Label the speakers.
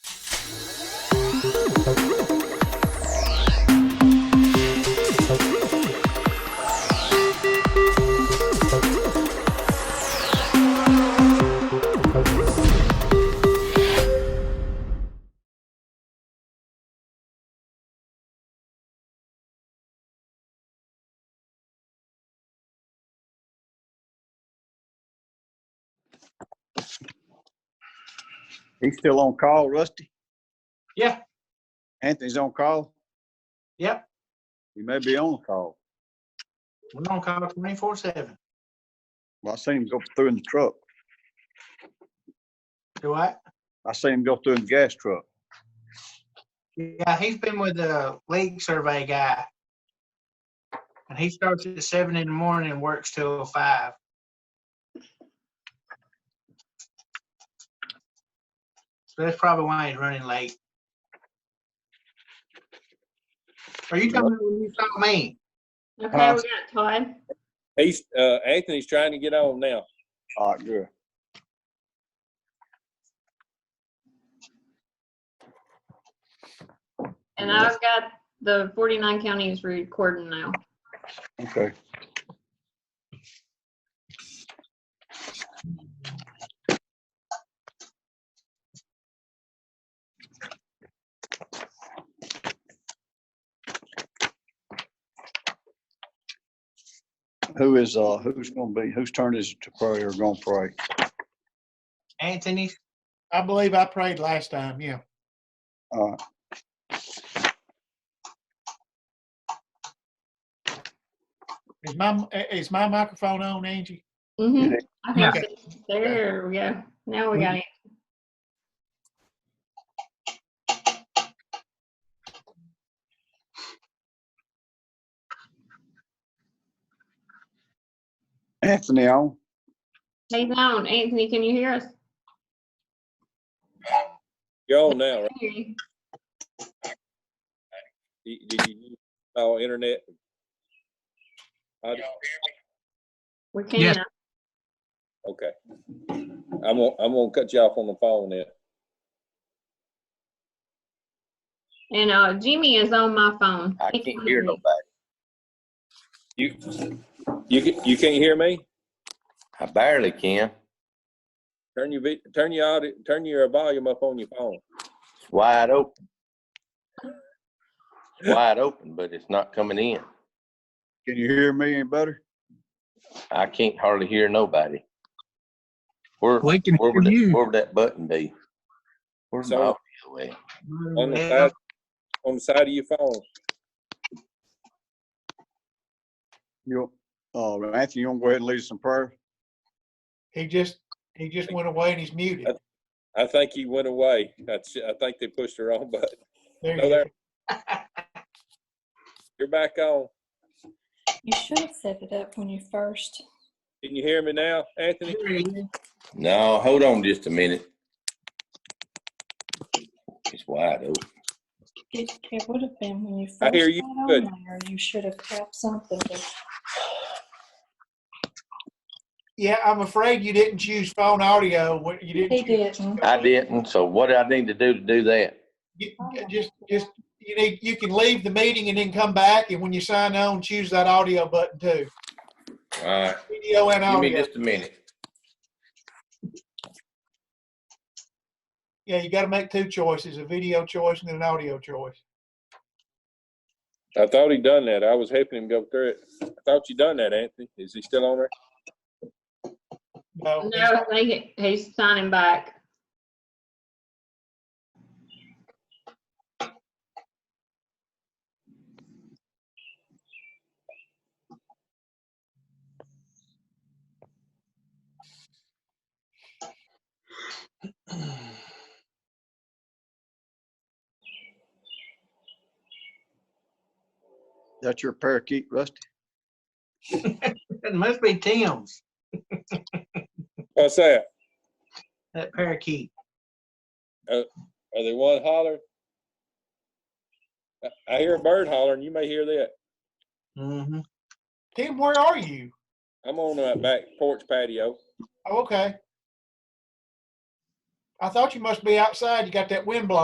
Speaker 1: He's still on call, Rusty?
Speaker 2: Yeah.
Speaker 1: Anthony's on call?
Speaker 2: Yep.
Speaker 1: He may be on call.
Speaker 2: We're on call twenty-four seven.
Speaker 1: Well, I seen him go through in the truck.
Speaker 2: Do I?
Speaker 1: I seen him go through in the gas truck.
Speaker 2: Yeah, he's been with the league survey guy. And he starts at seven in the morning and works till five. So that's probably why he's running late. Are you talking, when you saw me?
Speaker 1: Huh?
Speaker 3: Uh,
Speaker 4: Okay, we got Todd.
Speaker 5: He's, uh, Anthony's trying to get on now.
Speaker 1: All right, good.
Speaker 4: And I've got the 49 counties recording now.
Speaker 1: Okay. Who is, uh, who's gonna be, whose turn is it to pray or gonna pray?
Speaker 2: Anthony,
Speaker 6: I believe I prayed last time, yeah.
Speaker 1: Uh,
Speaker 6: Is my, is my microphone on, Angie?
Speaker 4: Mhm. I think so. There we go. Now we
Speaker 3: Mm-hmm.
Speaker 4: got it.
Speaker 1: Anthony on?
Speaker 4: Hey, down. Anthony, can you hear us?
Speaker 5: You're on now, right?
Speaker 4: Hear you.
Speaker 5: Do do you use all internet? I-
Speaker 4: We
Speaker 2: Yes.
Speaker 4: can.
Speaker 5: Okay. I'm gonna, I'm gonna cut you off on the phone then.
Speaker 4: And uh, Jimmy is on my phone.
Speaker 3: I
Speaker 4: He
Speaker 3: can't hear nobody.
Speaker 5: You, you, ca- you can't hear me?
Speaker 3: I barely can.
Speaker 5: Turn your, vid- turn your audio, turn your volume up on your phone.
Speaker 3: It's wide open. It's Wide open, but it's not coming in.
Speaker 1: Can you hear me any better?
Speaker 3: I can't hardly hear nobody. Where,
Speaker 7: We can
Speaker 3: where would
Speaker 7: hear
Speaker 3: that,
Speaker 7: you.
Speaker 3: where would that button be? Where's my
Speaker 5: So-
Speaker 3: audio
Speaker 5: On
Speaker 3: at?
Speaker 6: Mm-hmm.
Speaker 5: the
Speaker 2: Yeah.
Speaker 5: side, on the side of your phone.
Speaker 1: You, uh, Anthony, you wanna go ahead and lead us in prayer?
Speaker 6: He just, he just went away and he's muted.
Speaker 5: I think he went away. That's, I think they pushed the wrong button.
Speaker 6: There
Speaker 5: No,
Speaker 6: he is.
Speaker 5: there. You're back on.
Speaker 8: You should have set it up when you first.
Speaker 5: Can you hear me now, Anthony?
Speaker 3: No, hold on just a minute. It's wide open.
Speaker 8: It, it would have been when you first.
Speaker 5: I hear you
Speaker 8: got on
Speaker 5: good.
Speaker 8: there. You should have kept something. but
Speaker 6: Yeah, I'm afraid you didn't choose phone audio. What you didn't.
Speaker 8: He didn't.
Speaker 3: I didn't, so what do I need to do to do that?
Speaker 6: You- Just, just, you need, you can leave the meeting and then come back, and when you sign on, choose that audio button too.
Speaker 3: All right,
Speaker 6: Video and
Speaker 3: give me
Speaker 6: audio.
Speaker 3: just a minute.
Speaker 6: Yeah, you gotta make two choices, a video choice and then an audio choice.
Speaker 5: I thought he done that. I was helping him go through it. I thought you done that, Anthony. Is he still on there?
Speaker 6: No.
Speaker 4: No, I think he- he's signing back.
Speaker 1: That's your parakeet, Rusty?
Speaker 2: It must be Tim's,
Speaker 5: What's that?
Speaker 2: that parakeet.
Speaker 5: Are they one holler? I- I hear a bird hollering. You may hear that.
Speaker 2: Mm-hmm.
Speaker 6: Tim, where are you?
Speaker 5: I'm on that back porch patio.
Speaker 6: Oh, Okay. I thought you must be outside. You got that wind blowing.